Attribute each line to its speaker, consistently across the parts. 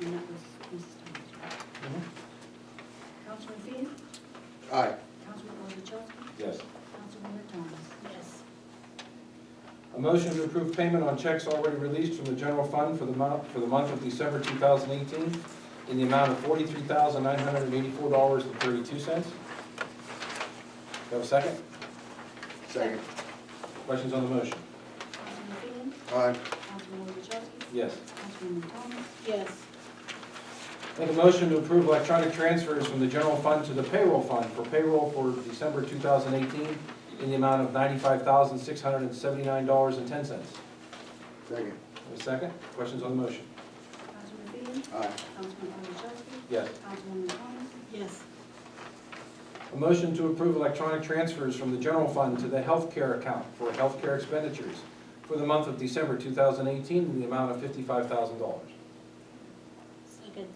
Speaker 1: and that was Mrs. Thomas. Councilman Finn,
Speaker 2: Aye.
Speaker 1: Councilwoman Wozzachowski,
Speaker 2: Yes.
Speaker 1: Councilwoman Thomas.
Speaker 3: yes,
Speaker 4: A motion to approve payment on checks already released from the general fund for the month, for the month of December 2018 in the amount of $43,984.32. Do I have a second?
Speaker 2: Second.
Speaker 4: Questions on the motion?
Speaker 1: Councilman Finn,
Speaker 2: Aye.
Speaker 1: Councilwoman Wozzachowski,
Speaker 4: Yes.
Speaker 1: Councilwoman Thomas.
Speaker 3: yes,
Speaker 4: Make a motion to approve electronic transfers from the general fund to the payroll fund for payroll for December 2018 in the amount of $95,679.10. Do I have
Speaker 2: Second.
Speaker 4: a second? Questions on the motion?
Speaker 1: Councilman Finn,
Speaker 2: Aye.
Speaker 1: Councilwoman Wozzachowski,
Speaker 4: Yes.
Speaker 1: Councilwoman Thomas.
Speaker 3: yes,
Speaker 4: A motion to approve electronic transfers from the general fund to the healthcare account for healthcare expenditures for the month of December 2018 in the amount of $55,000. No
Speaker 3: second,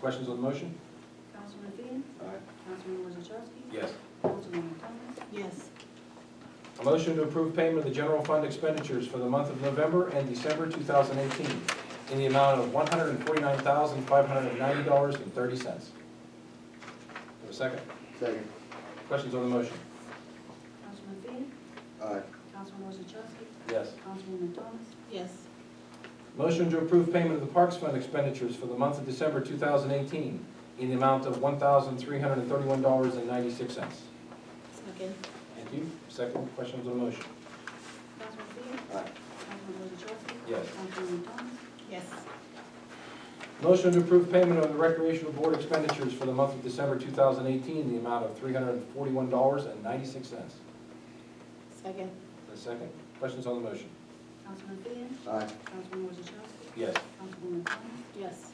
Speaker 4: questions on the motion?
Speaker 1: Councilman Finn,
Speaker 2: Aye.
Speaker 1: Councilwoman Wozzachowski,
Speaker 4: Yes.
Speaker 1: Councilwoman Thomas.
Speaker 3: yes,
Speaker 4: A motion to approve payment of the general fund expenditures for the month of November and December 2018 in the amount of $149,590.30. Have a second?
Speaker 2: Second.
Speaker 4: Questions on the motion?
Speaker 1: Councilman Finn,
Speaker 2: Aye.
Speaker 1: Councilwoman Wozzachowski,
Speaker 4: Yes.
Speaker 1: Councilwoman Thomas.
Speaker 3: yes,
Speaker 4: Motion to approve payment of the Parks Fund expenditures for the month of December 2018 in the amount of $1,331.96. Thank
Speaker 3: second,
Speaker 4: you. Second, questions on the motion?
Speaker 1: Councilman Finn,
Speaker 2: Aye.
Speaker 1: Councilwoman Wozzachowski,
Speaker 4: Yes.
Speaker 1: Councilwoman Thomas.
Speaker 3: yes,
Speaker 4: Motion to approve payment of the recreational board expenditures for the month of December 2018 in the amount of $341.96.
Speaker 3: second,
Speaker 4: The second, questions on the motion?
Speaker 1: Councilman Finn,
Speaker 2: Aye.
Speaker 1: Councilwoman Wozzachowski,
Speaker 4: Yes.
Speaker 1: Councilwoman Thomas.
Speaker 3: yes,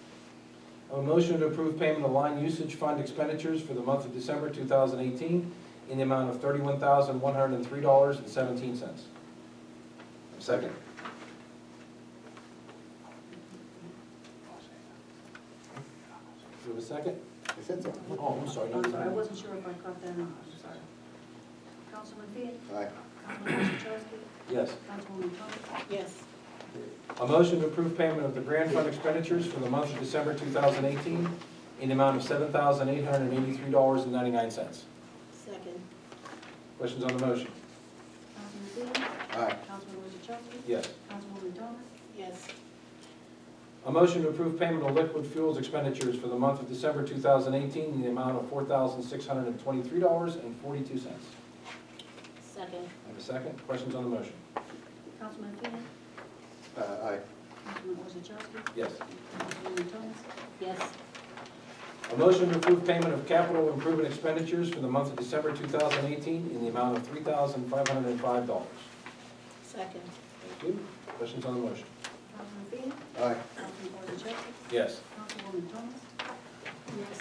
Speaker 4: A motion to approve payment of line usage fund expenditures for the month of December 2018 in the amount of $31,103.17. Second. Do we have a second?
Speaker 2: I said so.
Speaker 4: Oh, I'm sorry.
Speaker 1: I'm sorry, Um, I
Speaker 4: no.
Speaker 1: wasn't sure if I caught that or not, I'm sorry. Councilman Finn,
Speaker 2: Aye.
Speaker 1: Councilwoman Wozzachowski,
Speaker 4: Yes.
Speaker 1: Councilwoman Thomas.
Speaker 3: yes,
Speaker 4: A motion to approve payment of the grant fund expenditures for the month of December 2018 in the amount of $7,883.99.
Speaker 3: second,
Speaker 4: Questions on the motion?
Speaker 1: Councilman Finn,
Speaker 2: Aye.
Speaker 1: Councilwoman Wozzachowski,
Speaker 4: Yes.
Speaker 1: Councilwoman Thomas.
Speaker 3: yes,
Speaker 4: A motion to approve payment of liquid fuels expenditures for the month of December 2018 in the amount of $4,623.42. Have
Speaker 3: second,
Speaker 4: a second? Questions on the motion?
Speaker 1: Councilman Finn,
Speaker 2: Uh, aye.
Speaker 1: Councilwoman Wozzachowski,
Speaker 4: Yes.
Speaker 1: Councilwoman Thomas.
Speaker 3: yes,
Speaker 4: A motion to approve payment of capital improvement expenditures for the month of December 2018 in the amount of $3,505.
Speaker 3: second,
Speaker 4: Thank you. Questions on the motion?
Speaker 1: Councilman Finn,
Speaker 2: Aye.
Speaker 1: Councilwoman Wozzachowski,
Speaker 4: Yes.
Speaker 1: Councilwoman Thomas.
Speaker 3: yes,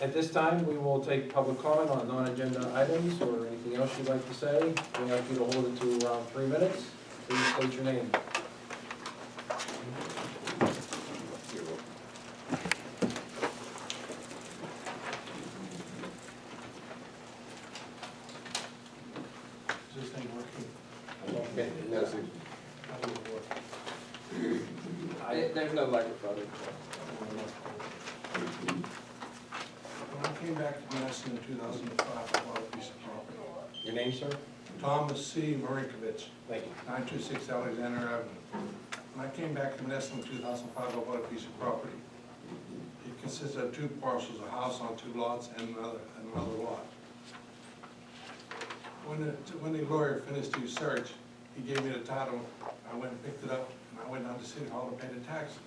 Speaker 4: At this time, we will take public comment on non-agenda items or anything else you'd like to say. We ask you to hold it to around three minutes. Please state your name.
Speaker 5: Is this thing working?
Speaker 2: Okay. No, sir.
Speaker 5: How do you work?
Speaker 2: There- There's no microphone.
Speaker 5: When I came back to Madison in two thousand and five, I bought a piece of property.
Speaker 4: Your name, sir?
Speaker 5: Thomas C. Marinkovich,
Speaker 4: Thank you.
Speaker 5: nine two six Alexander Avenue. When I came back to Madison in two thousand and five, I bought a piece of property. It consisted of two parcels, a house on two lots and another, another lot. When the, when the lawyer finished his search, he gave me the title, I went and picked it up, and I went down to City Hall to pay the taxes.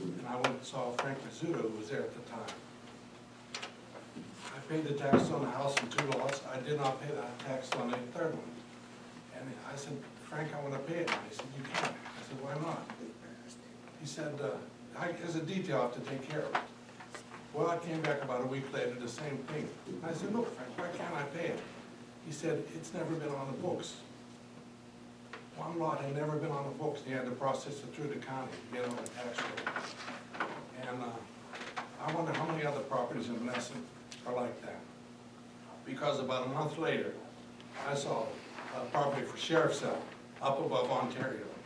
Speaker 5: And I went and saw Frank Rizzuto, who was there at the time. I paid the taxes on the house and two lots, I did not pay the tax on the third one. And I said, Frank, I wanna pay it, and he said, you can't, I said, why not? He said, uh, I, there's a detail I have to take care of. Well, I came back about a week later, the same thing. I said, look, Frank, why can't I pay it? He said, it's never been on the books. One lot had never been on the books, he had to process it through the county, get on the tax roll. And, uh, I wonder how many other properties in Menneson are like that? Because about a month later, I saw a property for sheriff's sale up above Ontario.